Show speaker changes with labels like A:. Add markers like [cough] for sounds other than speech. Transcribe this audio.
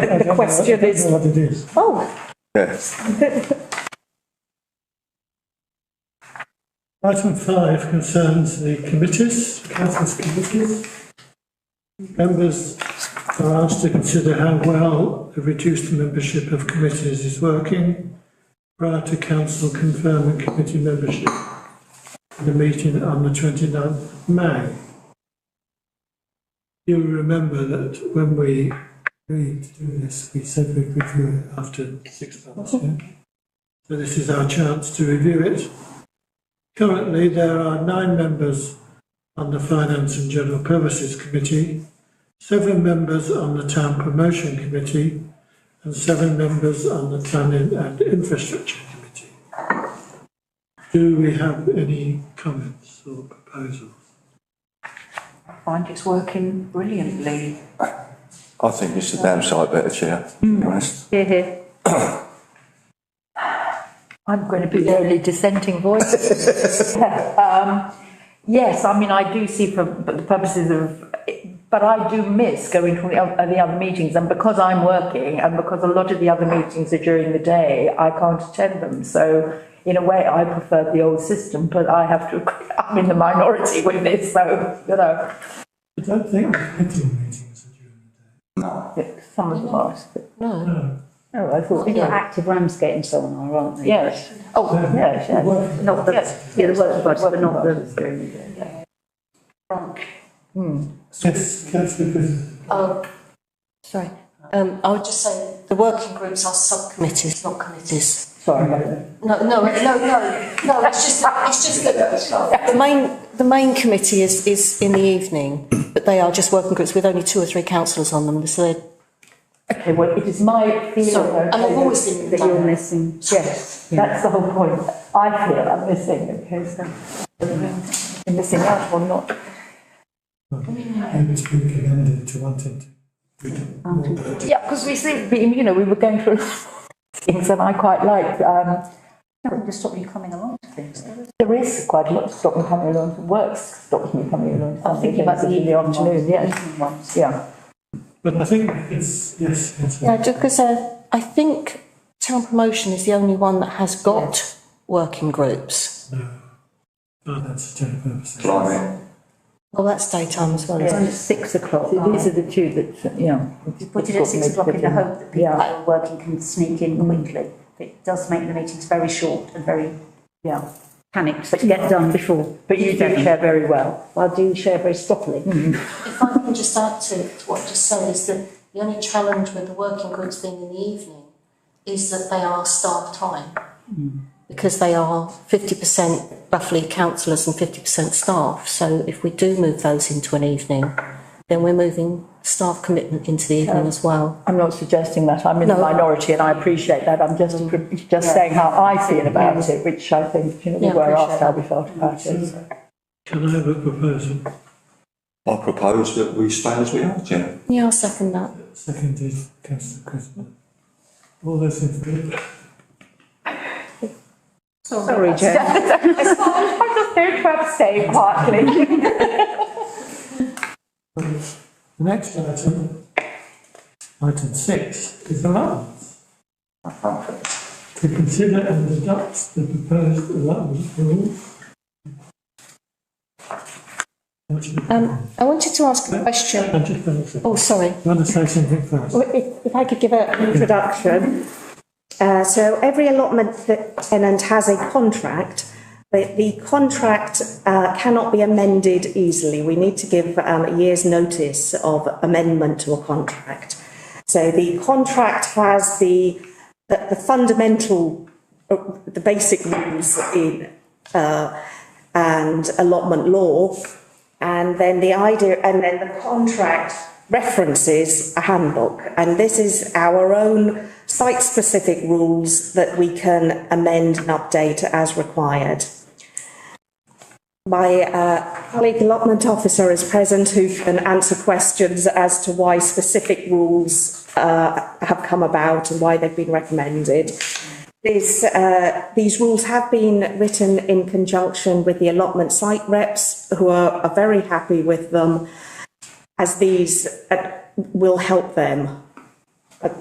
A: The question
B: That's
A: is,
B: what it is.
A: oh,
C: Yes,
B: Item five concerns the committees, council's committees. Members are asked to consider how well the reduced membership of committees is working prior to council confirming committee membership in the meeting on the 29th May. You'll remember that when we agreed to do this, we said we'd review it after six months, yeah? So this is our chance to review it. Currently, there are nine members on the Finance and General Purposes Committee, seven members on the Town Promotion Committee, and seven members on the Planning and Infrastructure Committee. Do we have any comments or proposals?
A: I find it's working brilliantly.
C: I think it's the damn sight better, Chair, to be honest.
D: Here, here. [coughs] I'm going to be the only dissenting voice. Um, Yes, I mean, I do see for for the purposes of, but I do miss going to the oth- the other meetings. And because I'm working and because a lot of the other meetings are during the day, I can't attend them. So in a way, I prefer the old system, but I have to, [laughs] agree, I'm in the minority with this, so, you know.
B: I don't think the committee meetings are during
D: Some of them are.
B: the day. No.
D: Oh, I thought,
E: Mm-hmm. You're
D: yeah.
E: active Ramsgate and so on, are, aren't they?
D: yes. Oh, yes, yes.
B: Well,
E: Not the,
D: Yes,
E: yeah, the work bodies, but not the,
B: Yes, councillor Griffin.
F: Oh, sorry. Um, I would just say the working groups are subcommittees, not committees.
D: Sorry about that.
F: No, no, no, no, no, it's just, it's just that the main, the main committee is, is in the evening, but they are just working groups with only two or three councillors on them, so they're.
D: Okay, well, it is my feeling.
F: Sorry, and
D: okay,
F: I've always been.
E: that you're missing.
D: Yes, that's the whole point. I feel I'm missing, okay, so. I'm missing out or not.
B: And to be commended to wanting to.
D: Yeah, because we seem, we- you know, we were going through things and I quite like, um,
E: Nothing to stop you coming along to things.
D: there is quite a lot to stop me coming along, to work stops me coming along.
E: I'm thinking about the
D: in
E: evening
D: the afternoon,
E: ones, the
D: yes,
E: evening ones.
D: yeah.
B: But I think it's, yes, it's.
F: Yeah, just because uh, I think town promotion is the only one that has got working groups.
B: Oh, that's a general purpose.
C: Blimey.
F: Well, that's daytime as well,
E: It's
F: isn't
E: only
F: it?
E: six o'clock.
D: So these are the two that, yeah.
E: You put it at six o'clock in the hope that people who
D: Yeah,
E: are working can sneak in quickly. It does make the meetings very short and very
D: yeah.
E: panicked, but get done before.
D: But you do share very well.
E: I do share very stoppily.
F: If I can just add to what I just said, is that the only challenge with the working groups being in the evening is that they are staff time. Mm. Because they are fifty percent roughly councillors and fifty percent staff, so if we do move those into an evening, then we're moving staff commitment into the evening as well.
D: I'm not suggesting that, I'm in the
F: No. Mm.
D: minority and I appreciate that, I'm just, just saying how I feel about it, which I think, you know, we
F: Yeah,
D: were
F: appreciate
D: asked how we felt about it. so.
B: Can I have a proposal?
C: I propose that we stay as we are, Chair.
F: Yeah, I'll second that.
B: Seconded, councillor Crispin. All those in favour?
E: Sorry,
D: [laughs]
E: Joe.
D: I'm just going to abstain partly.
B: The next item, item six, is allowance. To consider and adopt the proposed allowance rule.
F: Um, I wanted to ask a question.
B: I'm just going to say,
F: Oh, sorry.
B: you want to say something first?
G: Well, If if I could give a- an introduction. Uh, So every allotment that tenant has a contract, but the contract uh, cannot be amended easily. We need to give um, a year's notice of amendment to a contract. So the contract has the, the the fundamental, uh, the basic rules in uh, and allotment law. And then the idea, and then the contract references a handbook. And this is our own site specific rules that we can amend and update as required. My uh, colleague allotment officer is present who can answer questions as to why specific rules uh, have come about and why they've been recommended. This, uh, these rules have been written in conjunction with the allotment site reps who are, are very happy with them as these uh, will help them